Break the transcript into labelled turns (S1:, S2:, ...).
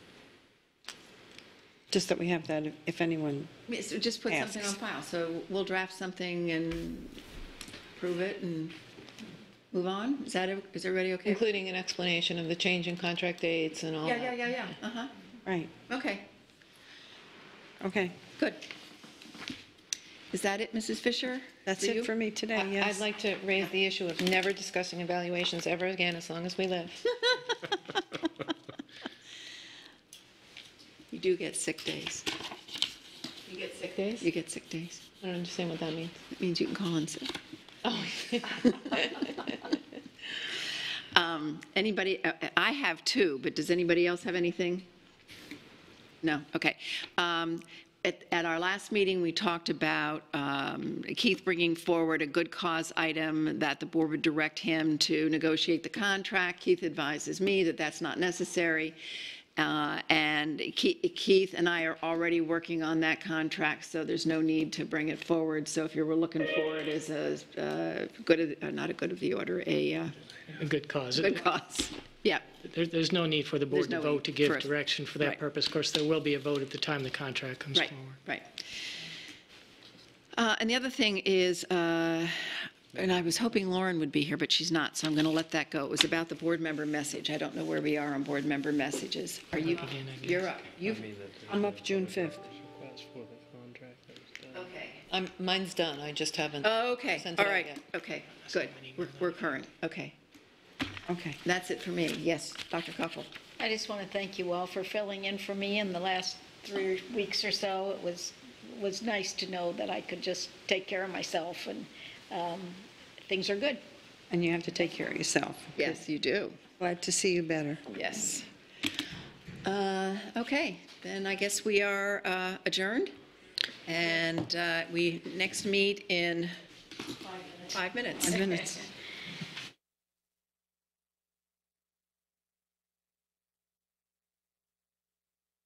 S1: Just that we have that, if- if anyone,
S2: I mean, So just put something on
S1: Asks.
S2: file, so we'll draft something and prove it and move on? Is that, is everybody okay?
S3: Including an explanation of the change in contract dates and all
S2: Yeah,
S3: that.
S2: yeah, yeah, yeah, uh-huh,
S1: right,
S2: okay,
S1: okay.
S2: good. Is that it, Mrs. Fisher?
S1: That's it
S2: you?
S1: for me today,
S3: I-
S1: yes.
S3: I'd like to raise the issue of never discussing evaluations ever again as long as we live.
S2: You do get sick days.
S3: You get sick days?
S2: You get sick days.
S3: I don't understand what that means.
S2: That means you can call in sick.
S3: Oh,
S2: Um, Anybody, uh, I have two, but does anybody else have anything? No, okay. Um, At, at our last meeting, we talked about um, Keith bringing forward a good cause item that the board would direct him to negotiate the contract. Keith advises me that that's not necessary. Uh, And Ke- Keith and I are already working on that contract, so there's no need to bring it forward. So if you were looking for it as a, uh, good, of- uh, not a good of the order, a uh,
S4: A good cause.
S2: good cause. Yeah,
S4: There, there's no need for the board
S2: There's
S4: to
S2: no need
S4: vote to
S2: for
S4: give
S2: us-
S4: direction for
S2: right.
S4: that purpose. Of course, there will be a vote at the time the contract comes
S2: right,
S4: forward.
S2: right. Uh, And the other thing is, uh, and I was hoping Lauren would be here, but she's not, so I'm going to let that go. It was about the board member message. I don't know where we are on board member messages. Are you,
S4: Again, I guess.
S2: you're up. You've,
S1: I'm up June 5th.
S2: okay.
S3: I'm, mine's done, I just haven't.
S2: Oh, Okay,
S3: Sent it
S2: all
S3: out
S2: right,
S3: yet.
S2: okay, good. We're- We're current, okay.
S1: Okay,
S2: That's it for me. Yes, Dr. Koffel.
S5: I just want to thank you all for filling in for me in the last three weeks or so. It was, was nice to know that I could just take care of myself and um, things are good.
S1: and you have to take care of yourself.
S2: Yes, you do.
S1: Glad to see you better.
S2: Yes. Uh, Okay, then I guess we are uh, adjourned, and uh, we next meet in five minutes.
S1: Minutes.